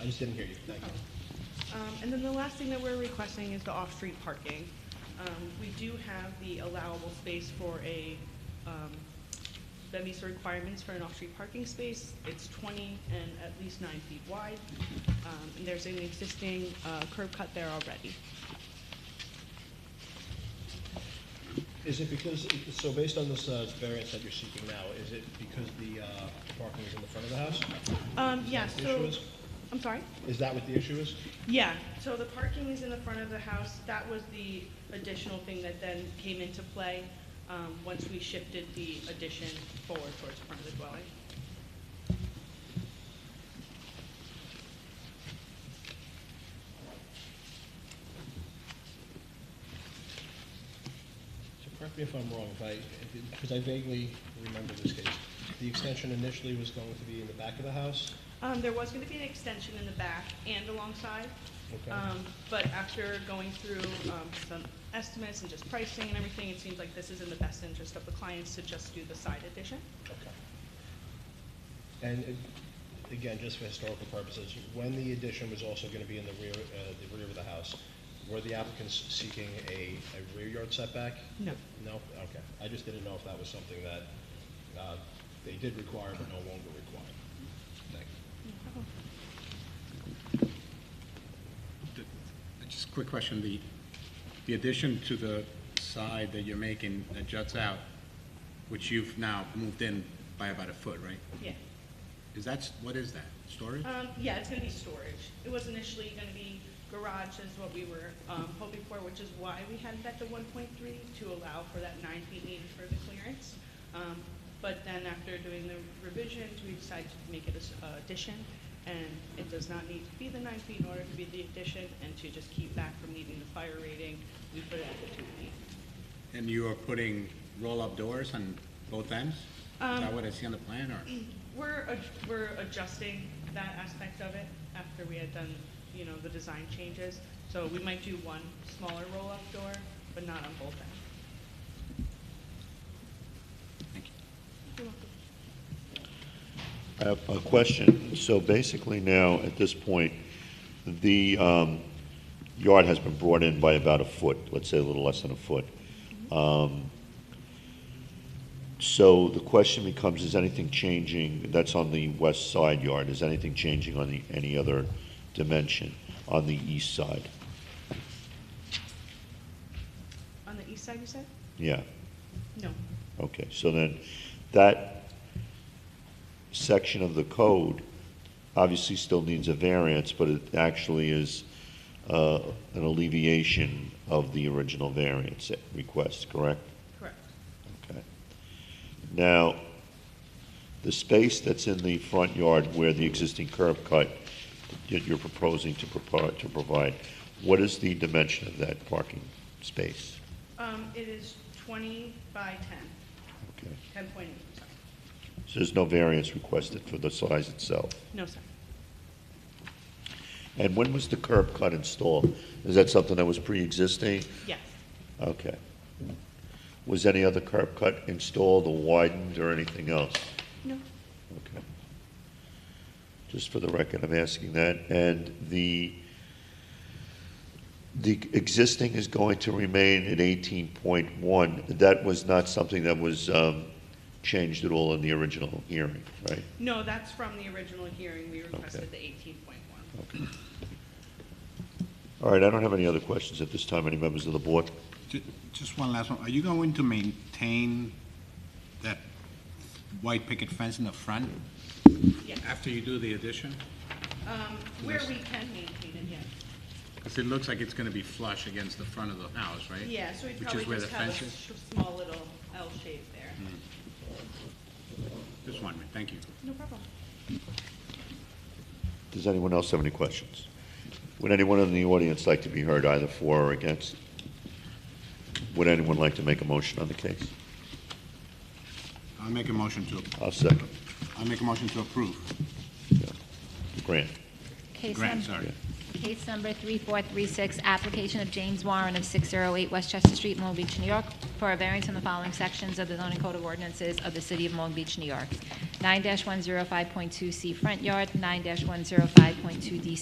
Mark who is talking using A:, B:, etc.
A: I just didn't hear you, thank you.
B: Um, And then the last thing that we're requesting is the off-street parking. Um, We do have the allowable space for a, um, that meets the requirements for an off-street parking space. It's 20 and at least nine feet wide. Um, And there's an existing uh, curb cut there already.
A: Is it because, so based on this uh, variance that you're seeking now, is it because the uh, parking is in the front of the house?
B: Um, Yeah,
A: Is that the issue
B: so,
A: is?
B: I'm sorry?
A: Is that what the issue is?
B: Yeah, so the parking is in the front of the house. That was the additional thing that then came into play um, once we shifted the addition forward towards the front of the dwelling.
A: So correct me if I'm wrong, if I, if- because I vaguely remember this case. The extension initially was going to be in the back of the house?
B: Um, There was going to be an extension in the back and alongside,
A: Okay.
B: um, but after going through um, some estimates and just pricing and everything, it seems like this is in the best interest of the clients to just do the side addition.
A: Okay. And uh, again, just for historical purposes, when the addition was also going to be in the rear, uh, the rear of the house, were the applicants seeking a a rear yard setback?
B: No.
A: No? Okay. I just didn't know if that was something that uh, they did require but no longer require. Thank you.
C: The- Just a quick question, the, the addition to the side that you're making that juts out, which you've now moved in by about a foot, right?
B: Yeah.
C: Is that, s- what is that, storage?
B: Um, Yeah, it's going to be storage. It was initially going to be garage is what we were um, hoping for, which is why we had that to 1.3 to allow for that nine feet needed for the clearance. Um, But then after doing the revisions, we decided to make it an addition, and it does not need to be the nine feet in order to be the addition, and to just keep back from needing the fire rating, we put it at the two feet.
C: And you are putting roll-up doors on both ends? Is that what I see on the plan, or?
B: We're, ad- we're adjusting that aspect of it after we had done, you know, the design changes. So we might do one smaller roll-up door, but not on both ends.
C: Thank you.
D: I have a question. So basically now, at this point, the um, yard has been brought in by about a foot, let's say a little less than a foot. Um, So the question becomes, is anything changing, that's on the west side yard, is anything changing on the, any other dimension on the east side?
B: On the east side, you said?
D: Yeah,
B: No.
D: okay. So then, that section of the code obviously still needs a variance, but it actually is uh, an alleviation of the original variance request, correct?
B: Correct.
D: Okay. Now, the space that's in the front yard where the existing curb cut that you're proposing to propose, to provide, what is the dimension of that parking space?
B: Um, it is twenty by ten,
D: Okay,
B: ten point eight, sorry.
D: so there's no variance requested for the size itself?
B: No, sorry.
D: And when was the curb cut installed? Is that something that was pre-existing?
B: Yes.
D: Okay. Was any other curb cut installed or widened or anything else?
B: No.
D: Okay. Just for the record, I'm asking that. And the, the existing is going to remain at 18.1. That was not something that was um, changed at all in the original hearing, right?
B: No, that's from the original hearing. We requested
D: Okay.
B: the eighteen point one.
D: All right, I don't have any other questions at this time. Any members of the board?
C: Ju- Just one last one, are you going to maintain that white picket fence in the front
B: Yes.
C: after you do the addition?
B: Um, where we can maintain it, yes.
C: Because it looks like it's gonna be flush against the front of the house, right?
B: Yeah, so we
C: Which is
B: probably
C: where the
B: just have a
C: fence is?
B: sh- small little L shape there.
C: Just one minute, thank you.
B: No problem.
D: Does anyone else have any questions? Would anyone in the audience like to be heard either for or against? Would anyone like to make a motion on the case?
C: I'll make a motion to,
D: I'll second.
C: I'll make a motion to approve.
D: Grant.
E: Case
C: Grant,
E: num-
C: sorry.
E: Case number 3436, application of James Warren of 608 Westchester Street, Long Beach, New York, for a variance in the following sections of the zoning code of ordinances of the city of Long Beach, New York. 9-105.2C front yard, 9-105.2D